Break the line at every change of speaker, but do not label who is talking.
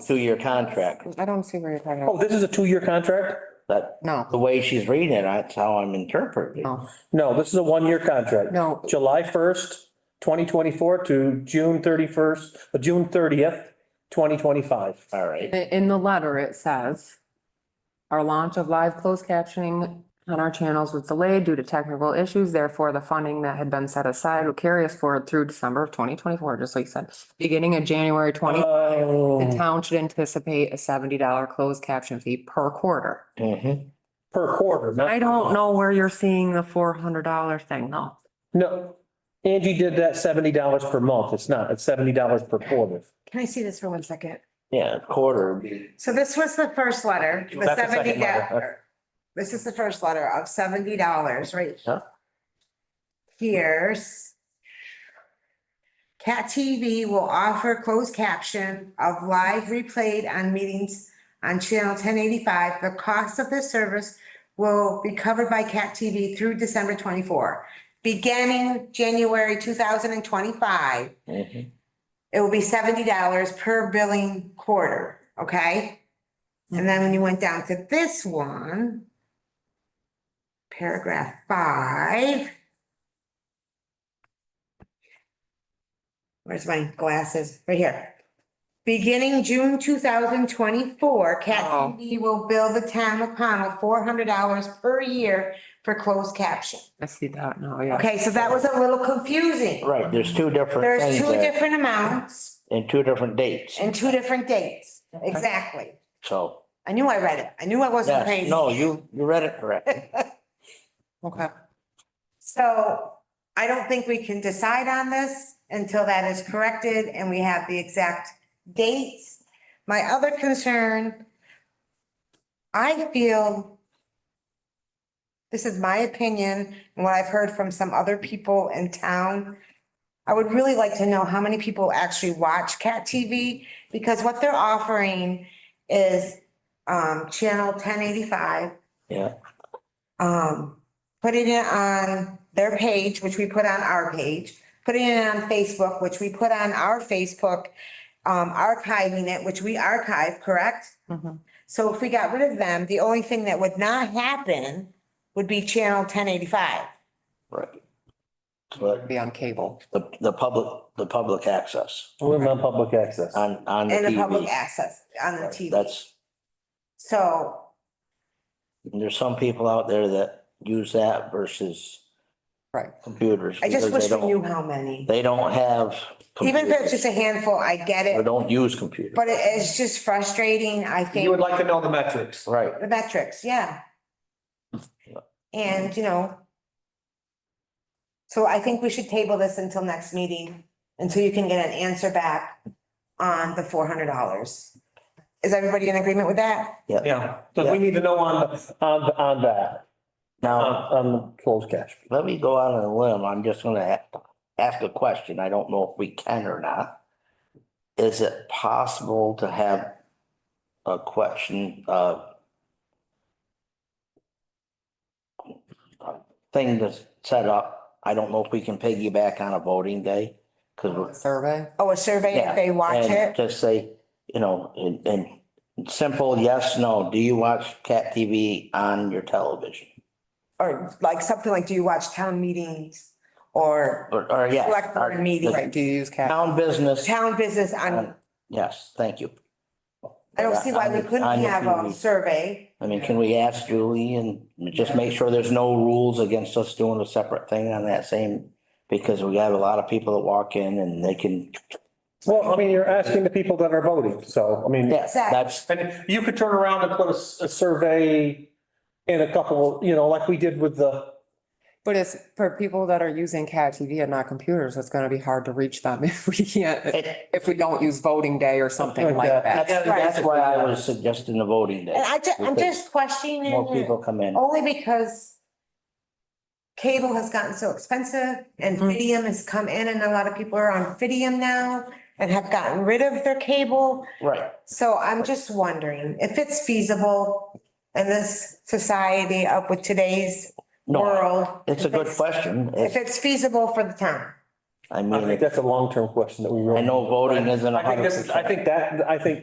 two-year contract.
I don't see where you're talking
Oh,
about.
this is a two-year contract?
That, the
No,
way she's reading it, that's how I'm interpreting.
Oh.
it.
no,
No, this is a one-year contract.
no.
July first, twenty twenty-four to June thirty-first, uh, June thirtieth, twenty twenty-five.
All right.
I- In the letter, it says, our launch of live closed captioning on our channels was delayed due to technical issues. Therefore, the funding that had been set aside will carry us forward through December of twenty twenty-four, just like you said. Beginning of January twenty, the
Oh,
town should anticipate a seventy dollar closed caption fee per quarter.
Mhm.
per quarter. not-
I don't know where you're seeing the four hundred dollar thing though.
No, Angie did that seventy dollars per month. It's not, it's seventy dollars per quarter.
Can I see this for one second?
Yeah, quarter. would be-
So this was the first letter, the
That's the
seventy
second letter.
dollar. This is the first letter of seventy dollars, right?
Yeah.
Here's. Cat TV will offer closed caption of live replayed on meetings on channel ten eighty-five. The cost of this service will be covered by Cat TV through December twenty-four. Beginning January two thousand and twenty-five,
Mhm.
it will be seventy dollars per billing quarter, okay? And then when you went down to this one, paragraph five. Where's my glasses? Right here. Beginning June two thousand twenty-four, Cat
Oh.
TV will bill the town of Pownell four hundred dollars per year for closed caption.
I see that now, yeah.
Okay, so that was a little confusing.
Right, there's two different
There's
things
two
there
different amounts.
and two different dates,
And two different dates, exactly.
so.
I knew I read it. I knew I wasn't
Yes,
crazy.
no, you, you read it correct.
Okay.
So I don't think we can decide on this until that is corrected and we have the exact dates. My other concern, I feel, this is my opinion and what I've heard from some other people in town. I would really like to know how many people actually watch Cat TV because what they're offering is um, channel ten eighty-five
Yeah,
um, putting it on their page, which we put on our page, putting it on Facebook, which we put on our Facebook, um, archiving it, which we archive, correct?
Mhm.
So if we got rid of them, the only thing that would not happen would be channel ten eighty-five.
right. But
Be on cable.
the, the public, the public access
We're on public access.
on, on the
And the public
TV.
access on the TV.
That's,
So,
there's some people out there that use that versus
Right.
computers.
I just
because
wish
they
we
don't-
knew how many.
They don't have.
Even if it's
computers,
just a handful, I get
Or
it,
don't use computers.
but it is just frustrating, I think.
like to know the metrics.
Right,
The metrics, yeah. And, you know. So I think we should table this until next meeting, until you can get an answer back on the four hundred dollars. Is everybody in agreement with that?
Yeah, because we need to know on, on, on that, on,
now,
on the closed cash.
let me go out on a limb, I'm just gonna a- ask a question, I don't know if we can or not. Is it possible to have a question, uh, thing to set up, I don't know if we can piggyback on a voting day, cause we're
Survey.
Oh, a survey
Yeah,
if they watch
and
it?
Just say, you know, and, and simple yes, no, do you watch cat TV on your television?
Or like something like, do you watch town meetings or
Or, or yes.
Select board
or-
meeting.
Right, do you use cat?
Town business,
town business on?
Um, yes, thank you.
I don't see why
On
we
your- on
couldn't
your
have um, a
TV.
survey.
I mean, can we ask Julie and just make sure there's no rules against us doing a separate thing on that same? Because we have a lot of people that walk in and they can,
Well, I mean, you're asking the people that are voting, so, I mean.
yes, that's,
And you could turn around and put a, s- a survey in a couple, you know, like we did with the,
But it's for people that are using CAT TV and not computers, it's gonna be hard to reach them if we can't,
it-
if we don't use voting day or something like that.
that's, that's why I was suggesting the voting
And
day.
I Oh. ju- I'm just questioning.
More people come in.
Only because cable has gotten so expensive and
Mhm.
Fidium has come in and a lot of people are on Fidium now and have gotten rid of their cable.
Right,
So I'm just wondering if it's feasible in this society up with today's
no,
world.
it's a
if
good question.
If
It's-
it's feasible for the town.
I
I
mean,
think
it-
that's a long-term question that we really.
I know voting isn't a
I think
hundred
this is, I
percent.
think that, I think